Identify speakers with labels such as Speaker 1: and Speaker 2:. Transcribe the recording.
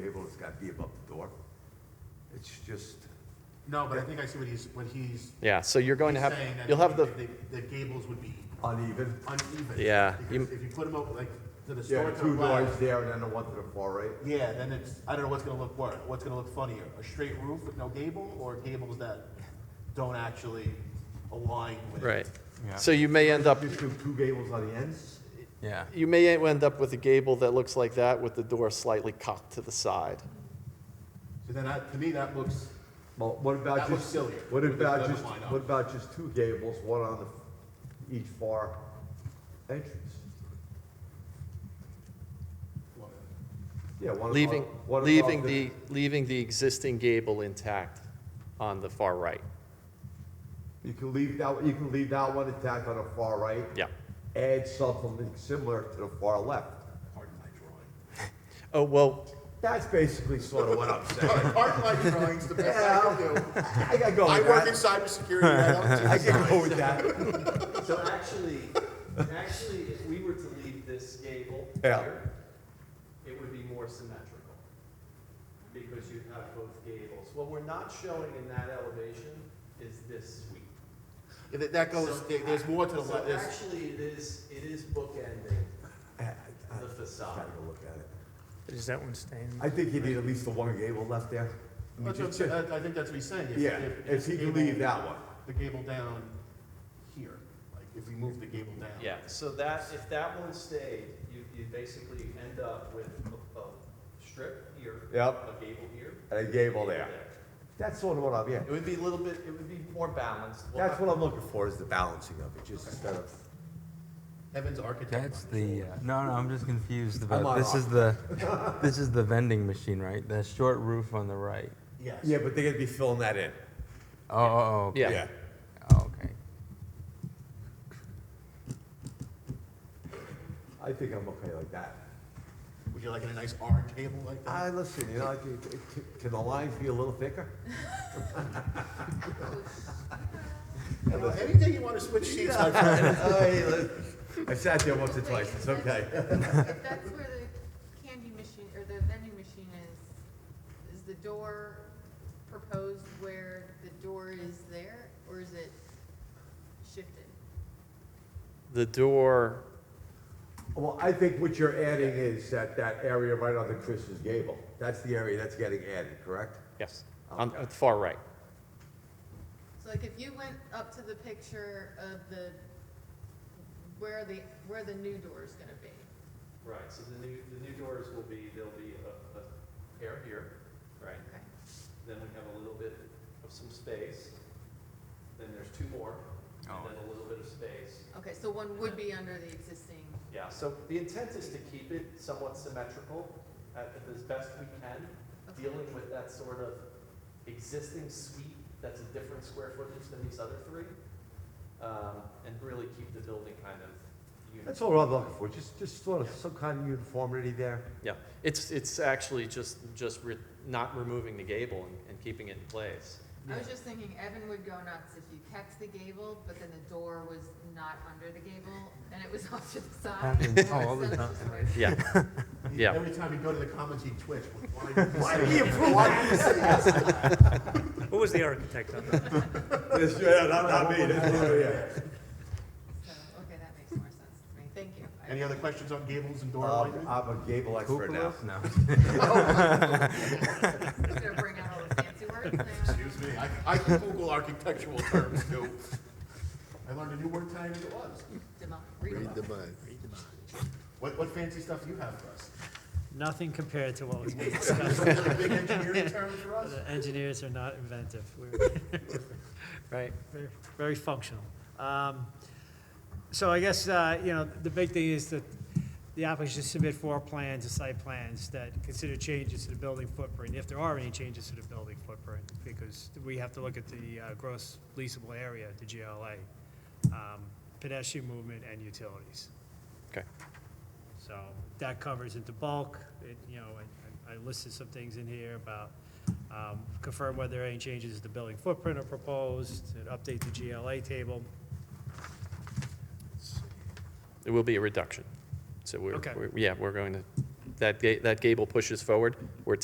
Speaker 1: that be above the door? It's just,
Speaker 2: No, but I think I see what he's, what he's
Speaker 3: Yeah, so you're going to have,
Speaker 2: saying, that
Speaker 3: you'll have the,
Speaker 2: the, the gables would be
Speaker 1: uneven.
Speaker 2: uneven.
Speaker 3: Yeah, you-
Speaker 2: Because if you put them up like to the
Speaker 1: Yeah,
Speaker 2: store
Speaker 1: the
Speaker 2: to the
Speaker 1: two doors
Speaker 2: left,
Speaker 1: there and then the one to the far right.
Speaker 2: yeah, then it's, I don't know what's gonna look worse, what's gonna look funnier, a straight roof with no gable, or gables that don't actually align with.
Speaker 3: right.
Speaker 4: Yeah.
Speaker 3: So you may end up,
Speaker 1: Just do two gables on the ends?
Speaker 4: Yeah.
Speaker 3: you may end up with a gable that looks like that with the door slightly cocked to the side.
Speaker 2: So then that, to me, that looks,
Speaker 1: Well, what about
Speaker 2: That looks
Speaker 1: just,
Speaker 2: sillier
Speaker 1: what
Speaker 2: with the
Speaker 1: about
Speaker 2: other
Speaker 1: just,
Speaker 2: line up.
Speaker 1: what about just two gables, one on the, each far entrance? Yeah, one.
Speaker 3: Leaving,
Speaker 1: above- one above
Speaker 3: leaving the, leaving the existing gable intact on the far right.
Speaker 1: You can leave that, you can leave that one intact on the far right.
Speaker 3: Yeah.
Speaker 1: Add something similar to the far left.
Speaker 2: pardon my drawing.
Speaker 3: Oh, well,
Speaker 1: That's basically sort of what I'm saying.
Speaker 2: Pardon my drawings, the best I
Speaker 1: Yeah,
Speaker 2: can do.
Speaker 1: I gotta go
Speaker 2: I
Speaker 1: with
Speaker 2: work in
Speaker 1: that.
Speaker 2: cybersecurity, I don't do
Speaker 1: I gotta go with that.
Speaker 5: So actually, actually, if we were to leave this gable
Speaker 1: Yeah.
Speaker 5: here, it would be more symmetrical. Because you'd have both gables. What we're not showing in that elevation is this suite.
Speaker 2: Yeah, That that goes,
Speaker 5: So-
Speaker 2: there- there's more to the
Speaker 5: So
Speaker 2: left, there's,
Speaker 5: actually, it is, it is bookending
Speaker 1: I- I-
Speaker 5: the
Speaker 1: I
Speaker 5: facade.
Speaker 1: Gotta go look at it.
Speaker 4: Is that one staying?
Speaker 1: I think you need at least the one gable left there. I mean,
Speaker 2: that's what I'm
Speaker 1: just-
Speaker 2: saying, I I think that's what he's saying. uh, If-
Speaker 1: Yeah, if
Speaker 2: it's
Speaker 1: he can
Speaker 2: gable-
Speaker 1: leave that one.
Speaker 2: The gable down here, like if we move the gable down.
Speaker 3: yeah,
Speaker 5: So that, if that one stayed, you, you basically end up with a, a strip here, a
Speaker 1: Yep,
Speaker 5: gable here.
Speaker 1: and a gable there. That's sort of what I'm, yeah.
Speaker 5: It would be a little bit, it would be more balanced. We'll
Speaker 1: That's
Speaker 5: have-
Speaker 1: what I'm looking for, is the balancing of it, just instead of,
Speaker 2: Evan's architect.
Speaker 4: That's
Speaker 2: on
Speaker 4: the,
Speaker 2: this.
Speaker 4: uh, no, no, I'm just confused about,
Speaker 1: on
Speaker 4: this
Speaker 1: off.
Speaker 4: is the, this is the vending machine, right? The short roof on the right.
Speaker 2: Yes.
Speaker 1: yeah, but they're gonna be filling that in.
Speaker 4: Oh, oh, okay.
Speaker 3: yeah.
Speaker 4: Oh, okay.
Speaker 1: I think I'm okay like that.
Speaker 2: Would you like a nice orange gable like that?
Speaker 1: I, listen, you know, I can, can- can the lines be a little thicker?
Speaker 2: You know, Anything you want to switch seats, my friend.
Speaker 1: Hey, Oh, look, I sat there once or twice, it's okay.
Speaker 6: That's where the candy machine, or the vending machine is, is the door proposed where the door is there, or is it shifted?
Speaker 3: The door,
Speaker 1: Well, I think what you're adding is that, that area right on the Chris's gable, that's the area that's getting added, correct?
Speaker 3: yes, on,
Speaker 1: Okay.
Speaker 3: on the far right.
Speaker 6: So like if you went up to the picture of the, where the, where the new door is gonna be,
Speaker 5: Right, so the new, the new doors will be, there'll be a, a pair here, right?
Speaker 6: okay?
Speaker 5: Then we have a little bit of some space, then there's two more, and then a little bit of space.
Speaker 6: Okay, so one would be under the existing,
Speaker 5: Yeah, so the intent is to keep it somewhat symmetrical at, as best we can,
Speaker 6: Okay.
Speaker 5: dealing with that sort of existing suite that's a different square footage than these other three, um, and really keep the building kind of uniform.
Speaker 1: That's all I'm looking for, just, just sort of some kind of uniformity there.
Speaker 3: Yeah, it's, it's actually just, just re- not removing the gable and, and keeping it in place.
Speaker 6: I was just thinking Evan would go nuts if you kept the gable, but then the door was not under the gable, and it was off to the side.
Speaker 4: Happens Oh, all the
Speaker 6: So it's
Speaker 4: time.
Speaker 6: just weird.
Speaker 3: Yeah, Yeah.
Speaker 2: Every time you go to the comments, you twitch. Why did you
Speaker 1: Why
Speaker 2: say
Speaker 1: did he
Speaker 2: that?
Speaker 1: approve
Speaker 2: Why did you say that?
Speaker 7: Who was the architect on that?
Speaker 1: Yes, yeah, not, not me, that's what it is.
Speaker 6: So, Oh, okay, that makes more sense to me. Thank you. I-
Speaker 2: Any other questions on gables and door
Speaker 1: Um,
Speaker 2: lighting?
Speaker 1: I'm a gable expert now.
Speaker 4: Cupolas? No.
Speaker 6: He's gonna bring out all the fancy words now.
Speaker 2: Excuse me, I, I can Google architectural terms too. I learned a new word tonight as it was.
Speaker 6: Demo- read them.
Speaker 2: mind. What, what fancy stuff do you have for us?
Speaker 7: Nothing compared to what was being
Speaker 2: Some
Speaker 7: discussed.
Speaker 2: really Big engineering term for us?
Speaker 7: The engineers are not inventive. We're
Speaker 3: right.
Speaker 7: very- very functional. Um, So I guess, uh, you know, the big thing is that the applicant should submit four plans, or site plans, that consider changes to the building footprint, if there are any changes to the building footprint, because we have to look at the uh, gross leasable area, the GLA, um, pedestrian movement, and utilities.
Speaker 3: Okay.
Speaker 7: So that covers into bulk, it, you know, I- I I listed some things in here about um, confirm whether any changes to the building footprint are proposed, and update the GLA table.
Speaker 3: It will be a reduction. So we're,
Speaker 7: Okay.
Speaker 3: we're- yeah, we're going to, that, ga- that gable pushes forward. We're